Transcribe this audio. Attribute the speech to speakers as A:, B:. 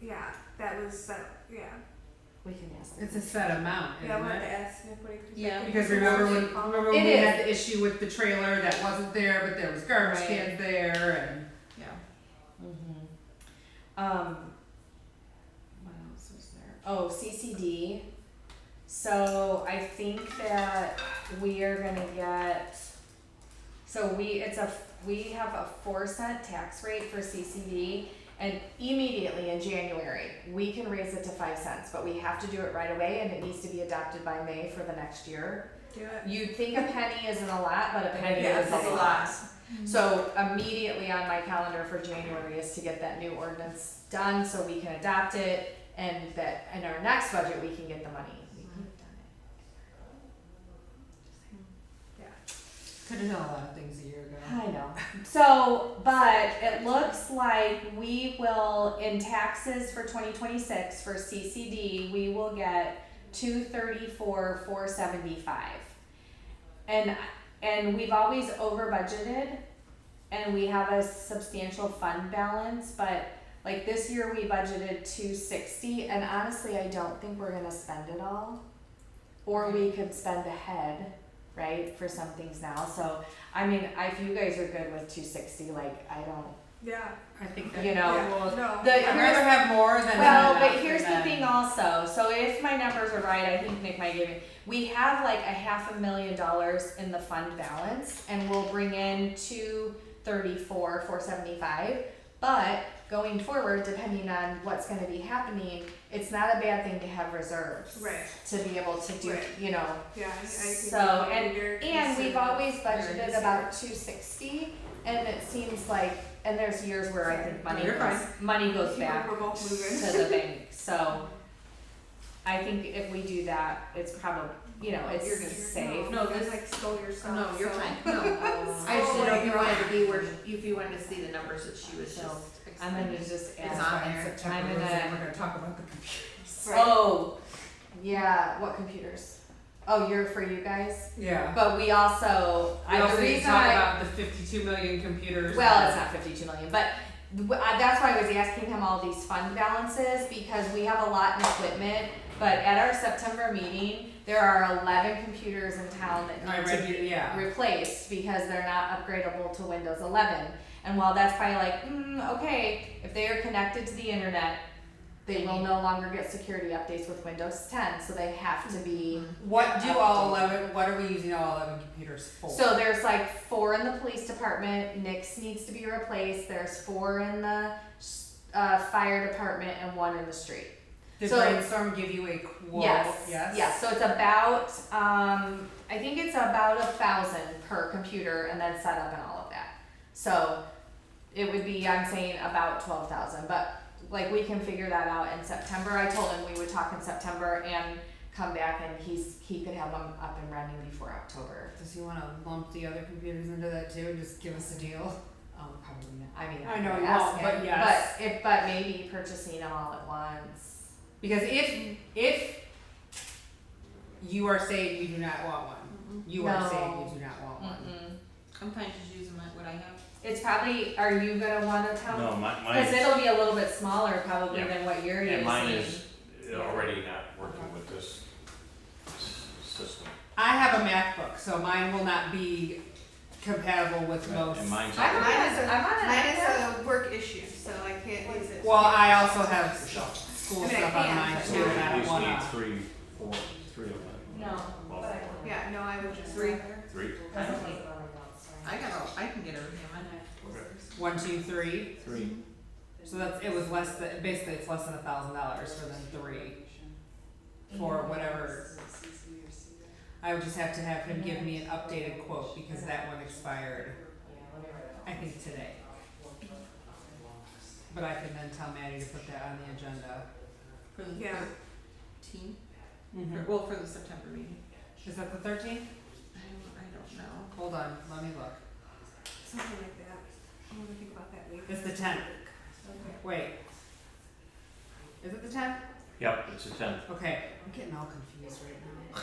A: yeah, that was set, yeah.
B: We can ask.
C: It's a set amount,
A: Yeah, I
C: isn't
A: wanted to
C: it?
A: ask Nick what he could
B: Yeah.
C: Because remember when, remember when
B: It
C: we
B: is.
C: had the issue with the trailer that wasn't there, but there was garbage
B: Right.
C: cans there and, yeah.
B: Mm-hmm. Um, what else was there? Oh, CCD. So I think that we are gonna get, so we, it's a, we have a four cent tax rate for CCD. And immediately in January, we can raise it to five cents, but we have to do it right away and it needs to be adopted by May for the next year.
A: Do it.
B: You'd think a penny isn't a lot, but a penny
A: Yeah,
B: is a
A: it's a
B: lot.
A: lot.
B: Mm-hmm. So immediately on my calendar for January is to get that new ordinance done so we can adopt it and that in our next budget, we can get the money. We could have done it.
C: Could have done a lot of things a year ago.
B: I know. So, but it looks like we will, in taxes for twenty twenty-six for CCD, we will get two thirty-four, four seventy-five. And, and we've always over budgeted and we have a substantial fund balance, but like this year we budgeted two sixty and honestly, I don't think we're gonna spend it all. Or we could spend ahead, right, for some things now, so I mean, I- if you guys are good with two sixty, like I don't,
A: Yeah,
C: I think
B: you
C: that,
B: know.
A: yeah, no.
B: the-
C: I'd rather have more than
B: Well,
C: not
B: but
C: enough
B: here's the
C: than-
B: thing also, so if my numbers are right, I think Nick might give me, we have like a half a million dollars in the fund balance and we'll bring in two thirty-four, four seventy-five. But going forward, depending on what's gonna be happening, it's not a bad thing to have reserves.
A: Right.
B: To be able to do,
A: Right.
B: you know,
A: Yeah, I, I think.
B: So,
A: we
B: and-
A: need your
B: and
A: consent.
B: we've always budgeted
C: conservative.
B: about two sixty, and it seems like, and there's years where I think money
C: You're
B: goes, money goes
A: People
B: back
A: We're both
B: to
A: moving.
B: the bank, so. I think if we do that, it's probably, you know, it's
D: You're good.
B: safe. Um,
A: No,
D: No,
A: you
D: this-
A: like stole your stuff.
D: No, you're
A: so-
D: fine, no. I just didn't know if you wanted to be where, if you wanted to see the numbers that she was
B: No,
D: just
B: I'm gonna
D: explaining.
B: just
D: It's
B: add,
D: on
C: Fine,
D: there.
C: September
B: I'm
C: was it?
B: gonna-
C: We're gonna talk about the computers.
A: Right,
B: oh, yeah, what computers? Oh, you're for you guys,
C: Yeah.
B: but we also,
C: We
B: I,
C: also
B: the
C: need to
B: reason
C: talk
B: I,
C: about the fifty-two million computers.
B: Well, it's not fifty-two million, but w- I- that's why I was asking him all these fund balances, because we have a lot in equipment, but at our September meeting, there are eleven computers in town that
C: I
B: need to
C: read,
B: be
C: you- yeah.
B: replaced, because they're not upgradable to Windows eleven. And while that's probably like, mm, okay, if they are connected to the internet, they will no longer get security updates with Windows ten, so they have to be.
C: What do all eleven, what are we using all eleven computers for?
B: So there's like four in the police department. Nick's needs to be replaced. There's four in the uh, fire department and one in the street.
C: Did
B: so-
C: brainstorm give you a quote?
B: yes.
C: Yes?
B: Yes. So it's about um, I think it's about a thousand per computer and then setup and all of that. So it would be I'm saying about twelve thousand, but like we can figure that out in September. I told him we would talk in September and come back and he's he could have them up and running before October.
C: Does he wanna lump the other computers into that too and just give us a deal?
B: Um, probably not. I mean,
C: I
B: I'm
C: know
B: not
C: you won't,
B: asking,
C: but yes.
B: But if, but maybe purchasing them all at once.
C: Because if, if you are saying you do not want one, you are
B: No.
C: saying you do not want one.
D: I'm fine just using my, what I have.
B: It's probably, are you gonna want to tell?
E: No, my, mine,
B: Cause it'll be a little bit smaller probably
E: Yeah.
B: than what you're using.
E: and mine is
B: Yeah.
E: already not working with this s- system.
C: I have a MacBook, so mine will not be compatible with most.
E: And mine's,
B: I'm on,
E: already-
B: a- I'm on
A: Mine
B: an
A: is a work issue, so I can't use it.
C: Well, I also have school
A: I mean, I
C: stuff on
A: can,
C: mine
A: but-
E: so
C: too, and I
E: at
C: don't
E: least
C: wanna.
E: need three, four, three of them.
B: No,
E: Well,
B: but-
E: four.
A: Yeah, no, I would just.
D: Three.
E: Three,
D: I got, all- I can get everything on
E: Okay.
C: One, two, three.
E: three.
C: So that's it was less than basically it's less than a thousand dollars for the three. For
B: Mm-hmm.
C: whatever. I would just have to have him give me an updated quote because that one expired, I think today. But I can then tell Maddie to put that on the agenda.
D: for the
A: Yeah.
D: thirteen, well, for the September meeting.
C: Is that the thirteenth?
D: I don't, I don't know.
C: Hold on, let me look.
A: Something like that. I wanna think about that week.
C: It's the tenth.
A: Okay.
C: Wait. Is it the tenth?
E: Yep, it's a ten.
C: Okay. I'm getting all confused right now.